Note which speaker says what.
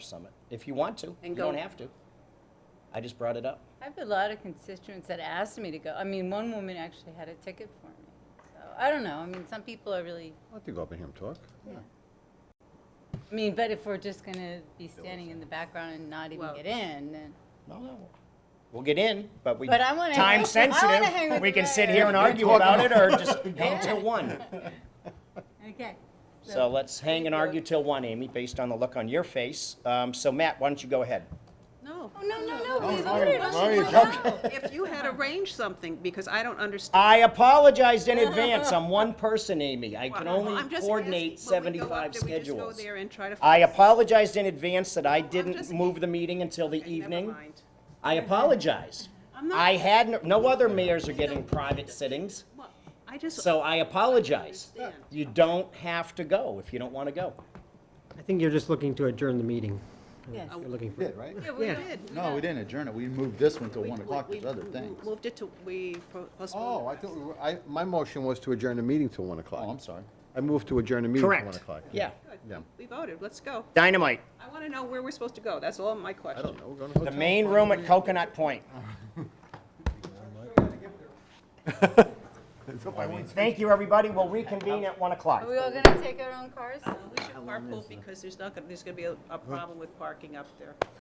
Speaker 1: Summit, if you want to. You
Speaker 2: And
Speaker 1: don't
Speaker 2: go.
Speaker 1: have to. I just brought it up.
Speaker 3: I have a lot of constituents that asked me to go. I mean, one woman actually had a ticket for me. So I don't know. I mean, some people are really.
Speaker 4: I'd like to go up and hear him talk.
Speaker 3: I mean, but if we're just going to be standing in the background and not even
Speaker 2: Well-
Speaker 3: get in, then.
Speaker 1: No, no. We'll get in, but we.
Speaker 3: But I wanna hang- I
Speaker 1: Time
Speaker 3: wanna hang
Speaker 1: sensitive,
Speaker 3: with
Speaker 1: we
Speaker 3: the
Speaker 1: can sit
Speaker 3: mayor.
Speaker 1: here and argue about it or just hang till one.
Speaker 3: Okay.
Speaker 1: So let's hang and argue till one, Amy, based on the look on your face. Um, so Matt, why don't you go ahead?
Speaker 2: No.
Speaker 3: Oh, no, no, no.
Speaker 4: Oh,
Speaker 3: We
Speaker 4: sorry,
Speaker 3: voted
Speaker 4: sorry.
Speaker 3: on it.
Speaker 2: If you had arranged something, because I don't understand.
Speaker 1: I apologized in advance. I'm one person, Amy. I can
Speaker 2: Well,
Speaker 1: only
Speaker 2: I'm just
Speaker 1: coordinate
Speaker 2: asking, when we go up,
Speaker 1: 75
Speaker 2: do we just go
Speaker 1: schedules.
Speaker 2: there and try to
Speaker 1: I
Speaker 2: fix-
Speaker 1: apologized in advance that I didn't
Speaker 2: just-
Speaker 1: move the meeting until the
Speaker 2: Okay, never
Speaker 1: evening.
Speaker 2: mind.
Speaker 1: I apologize.
Speaker 2: I'm not-
Speaker 1: I had, no- no other mayors are getting private sittings,
Speaker 2: Well, I just.
Speaker 1: so I apologize.
Speaker 2: understand.
Speaker 1: You don't have to go if you don't want to go.
Speaker 5: I think you're just looking to adjourn the meeting.
Speaker 3: Yes.
Speaker 5: You're looking for,
Speaker 6: Did, right?
Speaker 2: Yeah, we
Speaker 5: Yeah.
Speaker 2: did.
Speaker 6: No, we didn't adjourn it. We moved this one till
Speaker 2: We-
Speaker 6: one o'clock,
Speaker 2: we-
Speaker 6: there's other
Speaker 2: we
Speaker 6: things.
Speaker 2: Moved it to, we po-
Speaker 4: Oh,
Speaker 2: postponed
Speaker 4: I
Speaker 2: it.
Speaker 4: thought, we were- I, my motion was to adjourn the meeting till one
Speaker 6: Oh, I'm
Speaker 4: o'clock.
Speaker 6: sorry.
Speaker 4: I moved to adjourn the meeting till one
Speaker 1: Correct.
Speaker 4: o'clock.
Speaker 1: Yeah.
Speaker 4: Yeah.
Speaker 2: We voted, let's go.
Speaker 1: Dynamite.
Speaker 2: I want to know where we're supposed to go, that's all my
Speaker 4: I
Speaker 2: question.
Speaker 4: don't know, we're going to
Speaker 1: The
Speaker 4: hotel.
Speaker 1: main room at Coconut Point. Thank you, everybody. We'll reconvene at 1 o'clock.
Speaker 3: Are we all going to take our own cars?
Speaker 2: We should carpool because there's not, gonna- there's going to be a- a problem with parking up there.